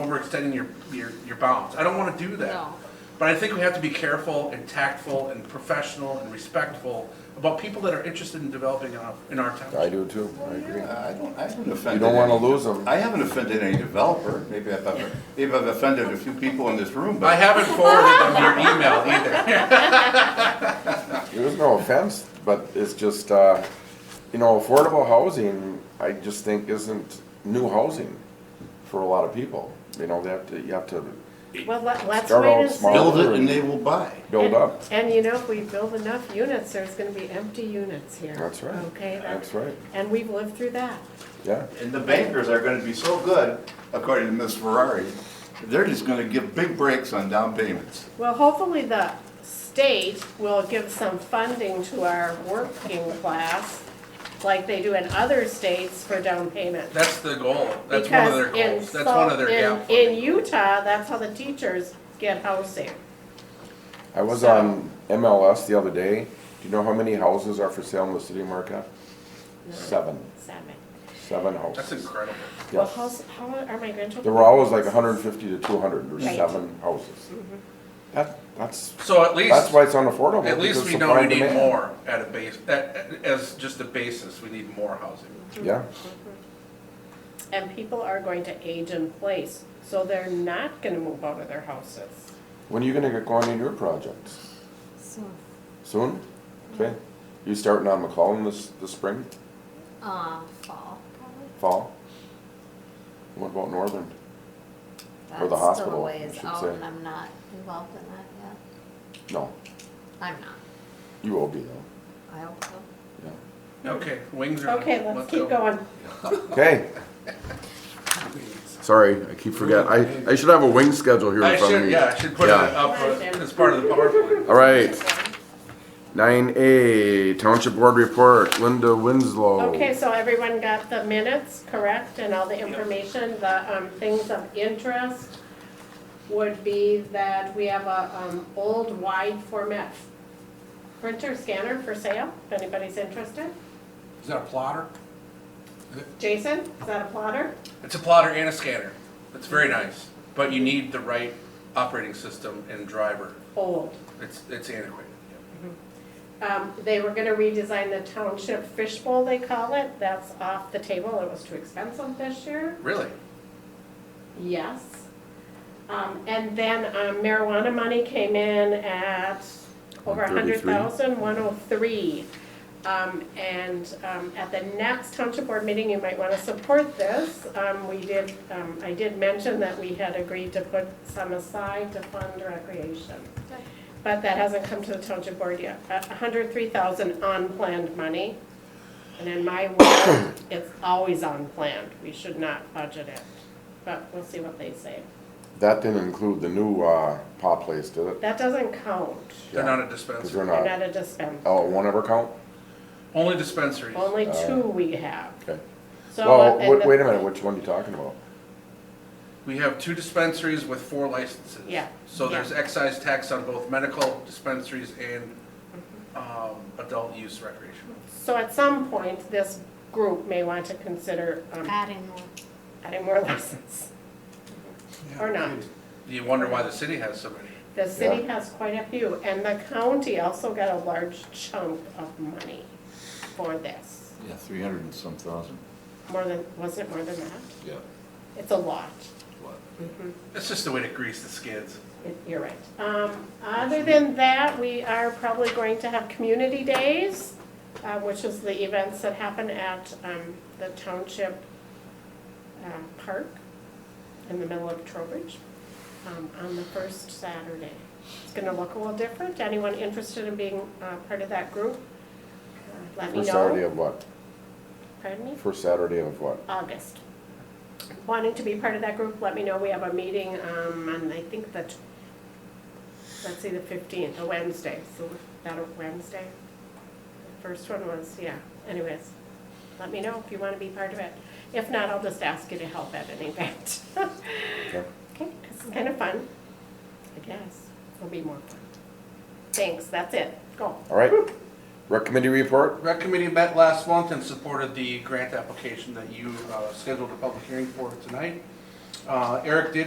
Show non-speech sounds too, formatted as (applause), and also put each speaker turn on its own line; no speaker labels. overextending your, your, your bounds. I don't wanna do that.
No.
But I think we have to be careful and tactful and professional and respectful about people that are interested in developing in our, in our
I
town.
do too, I agree.
Uh, I don't, I haven't offended.
You don't wanna
any-
lose 'em.
I haven't offended any developer, maybe I've, I've- maybe I've offended a few people in this room,
I
but
haven't forwarded them your email either.
There was no offense, but it's just, uh, you know, affordable housing, I just think isn't new housing for a lot of people. You know, they have to, you have to
Well, let- let's
Start
wait
out
and see.
small.
build it and they will buy.
build up.
And you know, if we build enough units, there's gonna be empty units here.
That's right.
Okay? that-
That's right.
And we've lived through that.
Yeah,
And the bankers are gonna be so good, according to Ms. Ferrari, they're just gonna give big breaks on down payments.
Well, hopefully the state will give some funding to our working class, like they do in other states for down payment.
That's the goal. That's one of their
Because in
goals. That's one of their
Salt- in-
gap funding.
In Utah, that's how the teachers get housing.
I was
So-
on MLS the other day. Do you know how many houses are for sale in the city of Marquette? Seven,
Seven.
seven
That's
houses.
incredible.
Well,
Yes.
how's, how are my grandchildren?
There were always like hundred and fifty to two hundred, there's
Right. Mm-hmm.
seven houses. That, that's,
So at least.
that's why it's unaffordable.
At least
because
we know
supply
we
and
need
demand.
more at a base, at- as just a basis, we need more housing.
Yeah,
And people are going to age in place, so they're not gonna move out of their houses.
when are you gonna get going on your projects?
So,
Soon? Okay. You starting on McCollum this, this spring,
uh, fall, probably.
fall? What about Northern? Or the
That's
hospital,
Still a ways
I should
out,
say.
and I'm not involved in that yet.
No,
I'm not.
you will be though,
I hope so.
yeah.
Okay, wings are.
Okay, let's
go.
keep going.
Okay. Sorry, I keep forgetting. I, I should have a wing schedule here
I
in front of
should,
me.
yeah, I should put it
Yeah.
up uh, as part of the PowerPoint.
All right. Nine A, Township Board Report, Linda Winslow.
Okay, so everyone got the minutes correct and all the information, the um, things of interest would be that we have a um, old wide format printer scanner for sale, if anybody's interested.
Is that a plotter?
Jason, is that a plotter?
It's a plotter and a scanner. It's very nice, but you need the right operating system and driver.
Old.
It's, it's antiquated.
Um, They were gonna redesign the township fishbowl, they call it, that's off the table, it was too expensive this year,
Really?
yes. Um, And then um, marijuana money came in at over a hundred
133.
thousand, one oh three. And um, at the next township board meeting, you might wanna support this. Um, We did, um, I did mention that we had agreed to put some aside to fund recreation. But that hasn't come to the township board yet. A hundred three thousand unplanned money. And in my world, it's always unplanned. We should not budget it. But we'll see what they say.
That didn't include the new, uh, pop place, did it?
That doesn't count.
They're
Yeah.
not a
Cause they're
dispensary.
They're
not,
not a dispensary.
oh, it won't ever count?
Only dispensaries.
Only two we have.
Okay.
So, uh,
Well,
and
wait,
the-
wait a minute, which one are you talking about?
We have two dispensaries with four licenses.
Yeah,
So there's
yeah.
excise tax on both medical dispensaries and um, adult use recreational.
So at some point, this group may want to consider um,
Adding more.
adding more (laughs) license. Or not.
You wonder why the city has so many.
The city
Yeah.
has quite a few, and the county also got a large chunk of money for this.
Yeah, three hundred and some thousand.
More than, wasn't it more than that?
Yeah.
It's a lot.
It's just a way to grease the skids.
It- You're right. Um, Other than that, we are probably going to have community days, uh, which is the events that happen at um, the township um, park in the middle of Trowbridge um, on the first Saturday. It's going to look a little different. Anyone interested in being uh, part of that group? uh, Let me
First Saturday
know.
of what?
Pardon me?
First Saturday of what?
August. Wanting to be part of that group, let me know. We have a meeting um, on, I think, the, tw- let's see, the 15th, a Wednesday. So that a Wednesday? The First one was, yeah. Anyways, let me know if you want to be part of it. If not, I'll just ask you to help at an event. (laughs)
Okay.
Okay, it's kind of fun, I guess. It'll be more fun. Thanks, that's it. Go.
All right. Rec committee report?
Rec committee met last month and supported the grant application that you uh, scheduled a public hearing for tonight. Uh, Eric did